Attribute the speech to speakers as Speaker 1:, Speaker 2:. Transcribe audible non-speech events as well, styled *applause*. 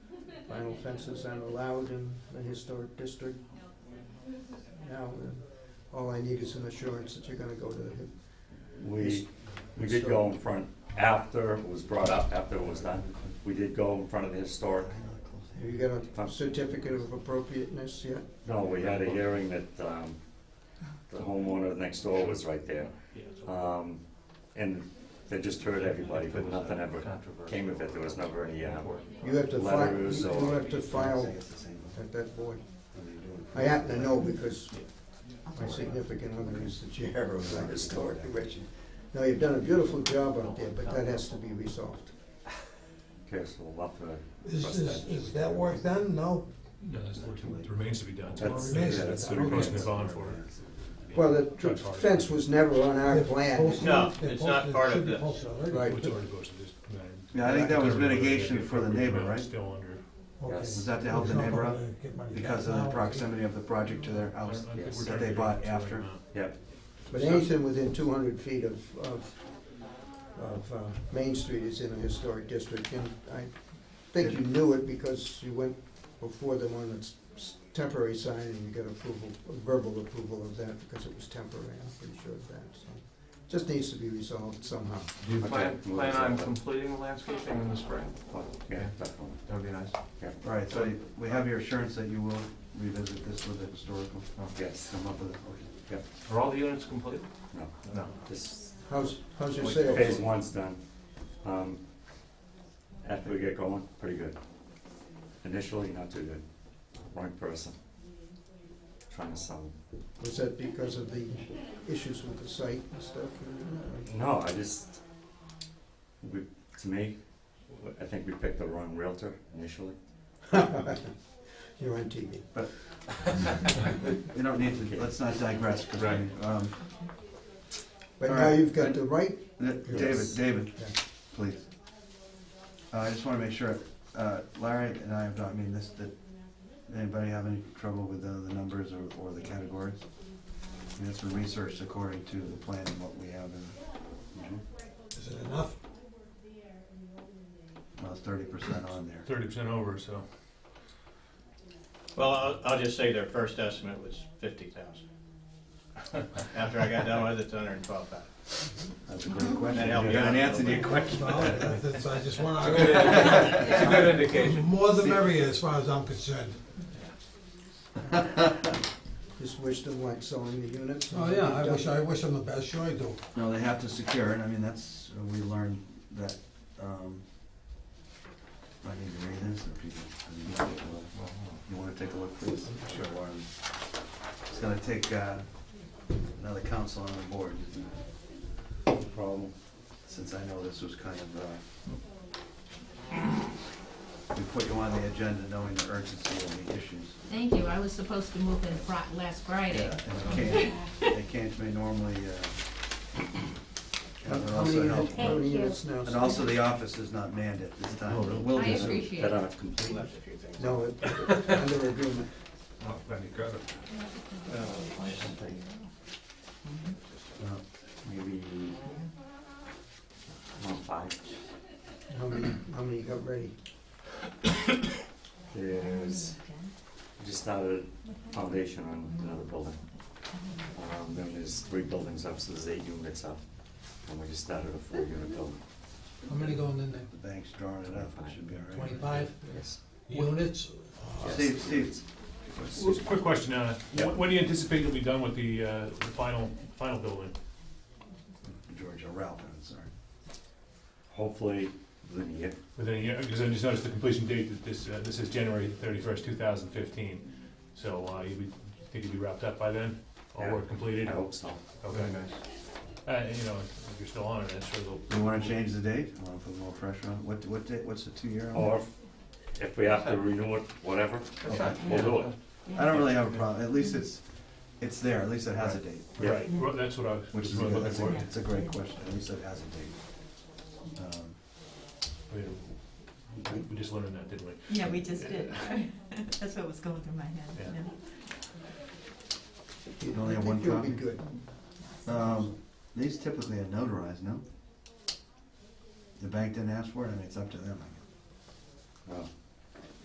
Speaker 1: vinyl fences aren't allowed in the historic district. Now, uh, all I need is an assurance that you're gonna go to the
Speaker 2: We, we did go in front, after it was brought up, after it was done, we did go in front of the historic.
Speaker 1: Have you got a certificate of appropriateness yet?
Speaker 2: No, we had a hearing that, um, the homeowner next door was right there. Um, and they just heard everybody, but nothing ever came of it, there was never any, um,
Speaker 1: You have to file,
Speaker 2: Letters
Speaker 1: you
Speaker 2: or-
Speaker 1: have to file at that board. I happen to know because my significant other is the chair of the historic commission. Now, you've done a beautiful job out there, but that has to be resolved.
Speaker 2: okay, so we'll have to.
Speaker 3: Is, is, is that work done? No?
Speaker 4: No, that's what it remains to be done.
Speaker 2: That's-
Speaker 4: Yeah,
Speaker 3: Remains to be
Speaker 4: That's
Speaker 3: done.
Speaker 4: what we're posting the bond for.
Speaker 1: Well, the tr- fence was never on our plan.
Speaker 5: No, it's not part of this.
Speaker 1: Right.
Speaker 4: It's already posted, just, man.
Speaker 6: Yeah, I think that was mitigation for the neighbor,
Speaker 4: Appropriate amount
Speaker 6: right?
Speaker 4: Still under,
Speaker 6: Was that to help the neighbor out? Because of the proximity of the project to their house
Speaker 4: I- I think
Speaker 2: Yes.
Speaker 4: we're
Speaker 6: that
Speaker 4: down
Speaker 6: they
Speaker 4: to
Speaker 6: bought
Speaker 4: the right
Speaker 6: after.
Speaker 4: amount.
Speaker 2: Yep,
Speaker 1: But anything within two hundred feet of, of, of, uh, Main Street is in a historic district, and I think you knew it because you went before them on its s- temporary sign, and you got approval, verbal approval of that, because it was temporary, I'm pretty sure of that, so. Just needs to be resolved somehow.
Speaker 6: Do you
Speaker 2: plan- plan on
Speaker 5: completing the landscaping in the spring?
Speaker 2: Oh, yeah, definitely.
Speaker 6: That'd be nice.
Speaker 2: Yeah.
Speaker 6: All right, so you- we have your assurance that you will revisit this with the historical, oh,
Speaker 2: Yes.
Speaker 6: come up with it, okay.
Speaker 5: Are all the units complete?
Speaker 2: No,
Speaker 6: No.
Speaker 2: this,
Speaker 1: How's, how's your
Speaker 2: phase
Speaker 1: sales?
Speaker 2: one's done. Um, after we get going, pretty good. Initially, not too good. Wrong person. Trying to sell.
Speaker 1: Was that because of the issues with the site and stuff? *laughs*
Speaker 2: No, I just, we, to me, I think we picked the wrong realtor initially.
Speaker 1: You're on TV.
Speaker 6: We don't need to, let's not digress, 'cause we-
Speaker 2: Right.
Speaker 6: um,
Speaker 1: But
Speaker 6: All
Speaker 1: now
Speaker 6: right.
Speaker 1: you've got the right,
Speaker 6: Th- David,
Speaker 2: Yes.
Speaker 6: David,
Speaker 1: Yeah.
Speaker 6: please. Uh, I just wanna make sure, uh, Larry and I have not, I mean, this, that, anybody have any trouble with the, the numbers or, or the categories? I mean, it's been researched according to the plan and what we have in,
Speaker 2: Mhm.
Speaker 3: Is it enough?
Speaker 6: well, it's thirty percent on there.
Speaker 4: Thirty percent over, so.
Speaker 5: Well, I'll, I'll just say their first estimate was fifty thousand. *laughs* After I got done with it, it's hundred and twelve thousand.
Speaker 6: That's a great question.
Speaker 5: That
Speaker 6: You
Speaker 5: helped me out
Speaker 6: haven't
Speaker 5: a
Speaker 6: answered
Speaker 5: little
Speaker 6: your
Speaker 5: bit.
Speaker 6: *laughs* question.
Speaker 3: Well, that's, I just wanna,
Speaker 5: It's a good indication.
Speaker 3: *laughs* more the merrier as far as I'm concerned.
Speaker 1: this wisdom like selling the units.
Speaker 3: Oh, yeah, I wish, I wish them the best, sure I do.
Speaker 6: *laughs* No, they have to secure it, I mean, that's, we learned that, um, I need to read this, or people, I mean, you wanna take a look? you wanna take a look, please? Sure. It's gonna take, uh, another council on the board,
Speaker 2: No problem.
Speaker 6: since I know this was kind of, uh, we put you on the agenda knowing the urgency of the issues.
Speaker 7: Thank you, I was supposed to move in Fri- last Friday.
Speaker 6: Yeah,
Speaker 4: uh,
Speaker 6: and Kane, and Kane may normally, uh,
Speaker 1: How
Speaker 6: and they're
Speaker 1: how many
Speaker 6: also
Speaker 1: units,
Speaker 6: helpful.
Speaker 1: how many
Speaker 7: Thank you.
Speaker 1: units now?
Speaker 6: And also, the office is not manned at this
Speaker 4: Oh,
Speaker 6: time. It will
Speaker 7: I
Speaker 6: be soon.
Speaker 7: appreciate
Speaker 2: That
Speaker 7: it.
Speaker 2: aren't complete.
Speaker 5: Left a few things.
Speaker 1: No, it- under agreement.
Speaker 4: Oh, glad you got it.
Speaker 6: Uh,
Speaker 2: Maybe, no, five.
Speaker 1: How many, how many got ready?
Speaker 2: There's, we just started foundation on another building. Um, then there's three buildings up, so there's eight units up. And we just started a four-unit building.
Speaker 3: How many going in there?
Speaker 6: The bank's drawing it up, it should be all right.
Speaker 3: Twenty-five
Speaker 2: Yes.
Speaker 3: units?
Speaker 6: Steve, Steve,
Speaker 4: Well, Quick question, uh,
Speaker 2: Yeah.
Speaker 4: when do you anticipate you'll be done with the, uh, the final, final building?
Speaker 6: George, or Ralph, I'm sorry.
Speaker 2: Hopefully, within a year.
Speaker 4: Within a year, because uh, I just noticed the completion date that this, uh, this is January thirty-first, two thousand fifteen. So, uh, you would, think you'd be wrapped up by then, all
Speaker 2: Yeah.
Speaker 4: work completed?
Speaker 2: I hope so.
Speaker 4: Okay, uh, you know, if you're still on it, I'm sure they'll.
Speaker 6: Do you wanna change the date? I wanna put a little pressure on, it. what, what date, what's the two-year? on
Speaker 4: Oh,
Speaker 2: Or if- if we have to renew it, whatever,
Speaker 6: it? Okay.
Speaker 2: we'll do it.
Speaker 6: I don't really have a problem, at least it's, it's there, at least it has a date.
Speaker 2: Yeah.
Speaker 4: Right, well, that's what I was
Speaker 6: Which
Speaker 4: was
Speaker 6: is, a
Speaker 4: really
Speaker 6: good-
Speaker 4: looking
Speaker 6: that's
Speaker 4: for.
Speaker 6: a, it's a great question, at least it has a date. Um,
Speaker 4: I mean, we- We just learned that, didn't we?
Speaker 7: Yeah, we just did. *laughs* That's what was going through my head,
Speaker 4: Yeah.
Speaker 1: You
Speaker 6: only have one
Speaker 1: I
Speaker 6: copy?
Speaker 1: think you'll be good.
Speaker 6: Um, these typically are notarized, no? The bank didn't ask for it, I mean, it's up to them, I guess.
Speaker 2: Well,